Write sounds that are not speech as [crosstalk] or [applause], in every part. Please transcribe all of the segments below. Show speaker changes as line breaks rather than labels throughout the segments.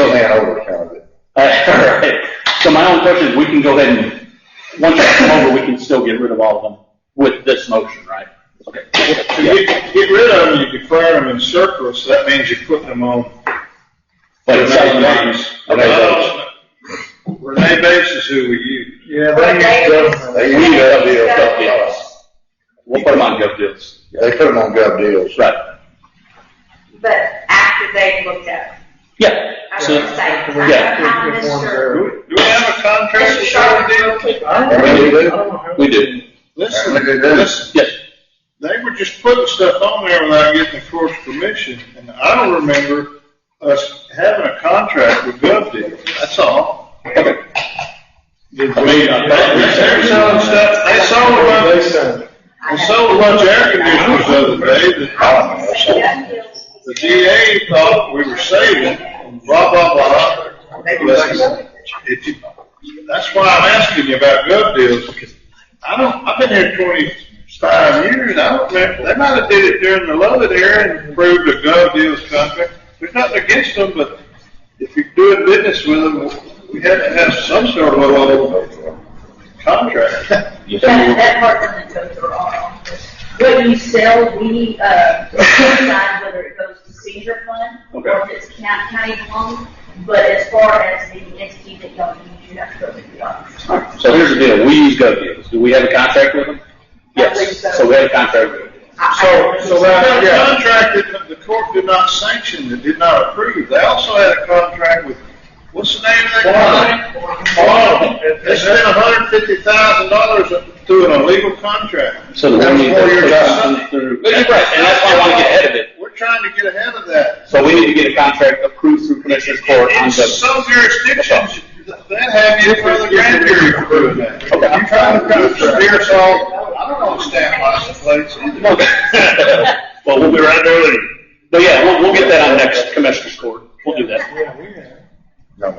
Uh, [laughs] All right. So my only question is, we can go ahead and, once you come over, we can still get rid of all of them with this motion, right? Okay.
If you get rid of them, you declare them in surplus, that means you're putting them on.
But it's all
Renee
names.
Bates. Uh, Renee Bates is who we use.
Yeah,
But
they,
they,
We
they use
GovDeals,
GovDeals.
GovDeals. We'll put them on GovDeals.
They put them on gov deals.
Right.
but after they looked at it.
Yeah.
I
So,
should say, I don't
yeah.
have Mr.
Do do we have a contract
Mr.
with
Sharp
her?
real quick.
Alright, we do.
Oh,
we do.
Listen,
Look at this.
Yes.
listen, they were just putting stuff on there without getting the court's permission, and I don't remember us having a contract with GovDeal, that's all.
Okay.
Did
I mean, I thought we
They're selling stuff, they sold a bunch,
They signed it.
they sold a bunch of air conditioners the other day that
I don't know.
Yeah.
The DA thought we were saving, blah, blah, blah. It- it- That's why I'm asking you about gov deals, because I don't, I've been here twenty-five years, I don't remember, they might have did it during the Lovett era and approved a gov deals contract. There's nothing against them, but if you're doing business with them, we have to have some sort of a contract.
That, that part doesn't go through our office. What you sell, we, uh, decide whether it goes to seizure fund or if it's county, county loan. But as far as the entity that y'all use, you have to go through the office.
All right. So here's the deal. We use GovDeals. Do we have a contract with them?
I believe so.
Yes. So we have a contract with them.
So, so that, contract that the court did not sanction, it did not approve, they also had a contract with, what's the name of that company? Quantum. They spent hundred fifty thousand dollars through an illegal contract.
So the
That's
one you
four years out.
put through. But you're right, and that's why I want to get ahead of it.
We're trying to get ahead of that.
So we need to get a contract approved through Commissioner's Court on
In
the.
some jurisdictions, they have you for the grand jury for doing that.
Okay.
You're trying to prove some beer salt, I don't understand why some places either.
[laughs] Well, we'll be right there with you. But yeah, we'll, we'll get that on next Commissioner's Court. We'll do that.
Yeah, we had.
No.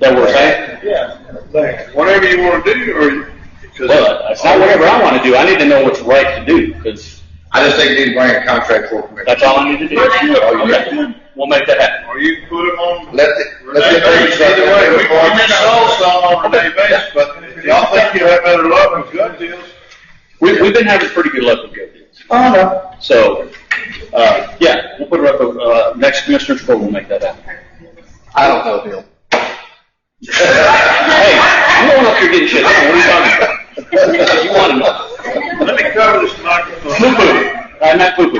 That works, eh? right?
Yeah, they.
Whatever you wanna do, or, because.
Well, it's not whatever I want to do. I need to know what's right to do, because
I just think you need to bring a contract for commission.
that's all I need to do. Okay. We'll make that happen.
Or you can put them on
Let the, let
Renee
the.
Bates, either way, we, we may sell
Well,
some on Renee Bates, but if y'all think you have better luck with gun deals,
We, we've been having pretty good luck with good deals.
Oh, no.
So, uh, yeah, we'll put it up, uh, next Commissioner's Court, we'll make that happen.
[laughs]
I don't know, Bill.
Hey, you don't know if you're getting shit. What are you talking about? [laughs] You want to know.
let me cover this microphone.
Poo-poo. I'm not poo-poo.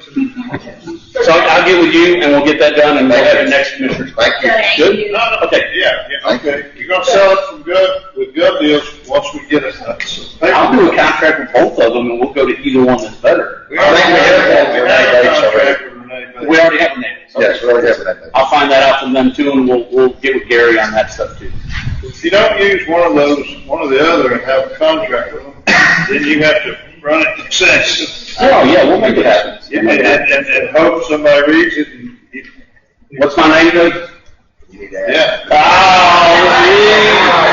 So I'll I'll get with you and we'll get that done and we'll have the next commissioner's.
Thank you.
Good?
No, no,
Okay.
Yeah, yeah, okay. You're gonna sell it from gun, with gun deals, once we get it.
I'll do a contract with both of them and we'll go to either one that's better.
We already have one, we have
Renee
a
Bates already.
contract with Renee Bates.
We already have a name. so-
Yes, we already have that.
I'll find that out from them too and we'll, we'll get with Gary on that stuff too.
If you don't use one of those, one or the other, and have a contract with them, then you have to run it consensus.
Oh, yeah, we'll make it happen.
And, and, and- and hope somebody reads it and,
What's my name, Doug?
You need to ask.
yeah.
Oh,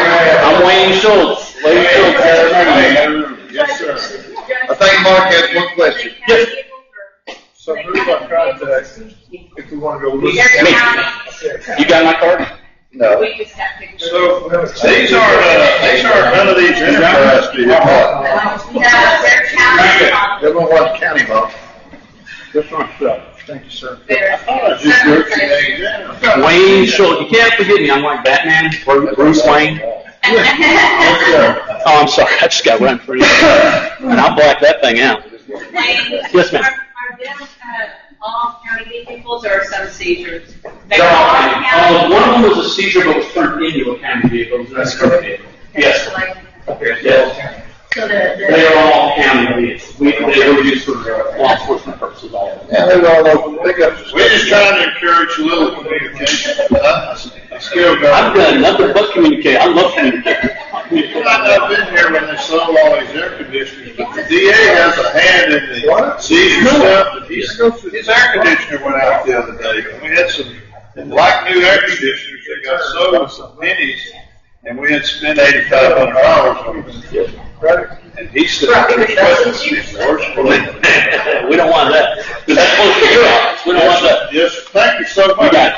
yeah. I'm Wayne Schultz. Wayne Schultz. I remember you.
Yes, sir.
I think Mark has one question.
Yes.
So who's our contract if we wanna go look? at
Every
Me.
county,
it?
You got my card?
No.
we just have to.
So, these are, uh, these are none of these interesting.
Come on.
No, every county.
They don't want county law.
This one's, uh, thank you, sir.
I thought I just worked the eggs in.
Wayne Schultz. You can't forget me. I'm like Batman, Bru- Bruce Wayne. Oh, I'm sorry. I just got run for you. And I'll black that thing out. [laughs] Yes, ma'am.
Are, are them, uh, all county vehicles or some seizures? They're all
Uh,
county?
one of them was a seizure but was turned into a county vehicle. It was not a county vehicle. Yes. Yes.
So the, the.
They are all county vehicles. We, they were used for uh, law enforcement purposes, all of them.
Yeah, they're all over pickups.
We're just trying to encourage a little communication. I I still
I've
got,
done nothing but communicate. I love communicating.
you might not have been here when they sold all these air conditioners, but the DA has a hand in the seizure stuff. and He's, his air conditioner went out the other day. and We had some, like new air conditioners, they got sold some pennies, and we had spent eighty-five hundred dollars on them.
Right?
And he said, "Unfortunately,
We don't want that. That's close to your office. We don't want that.
Yes, thank you so
You
much.
got it.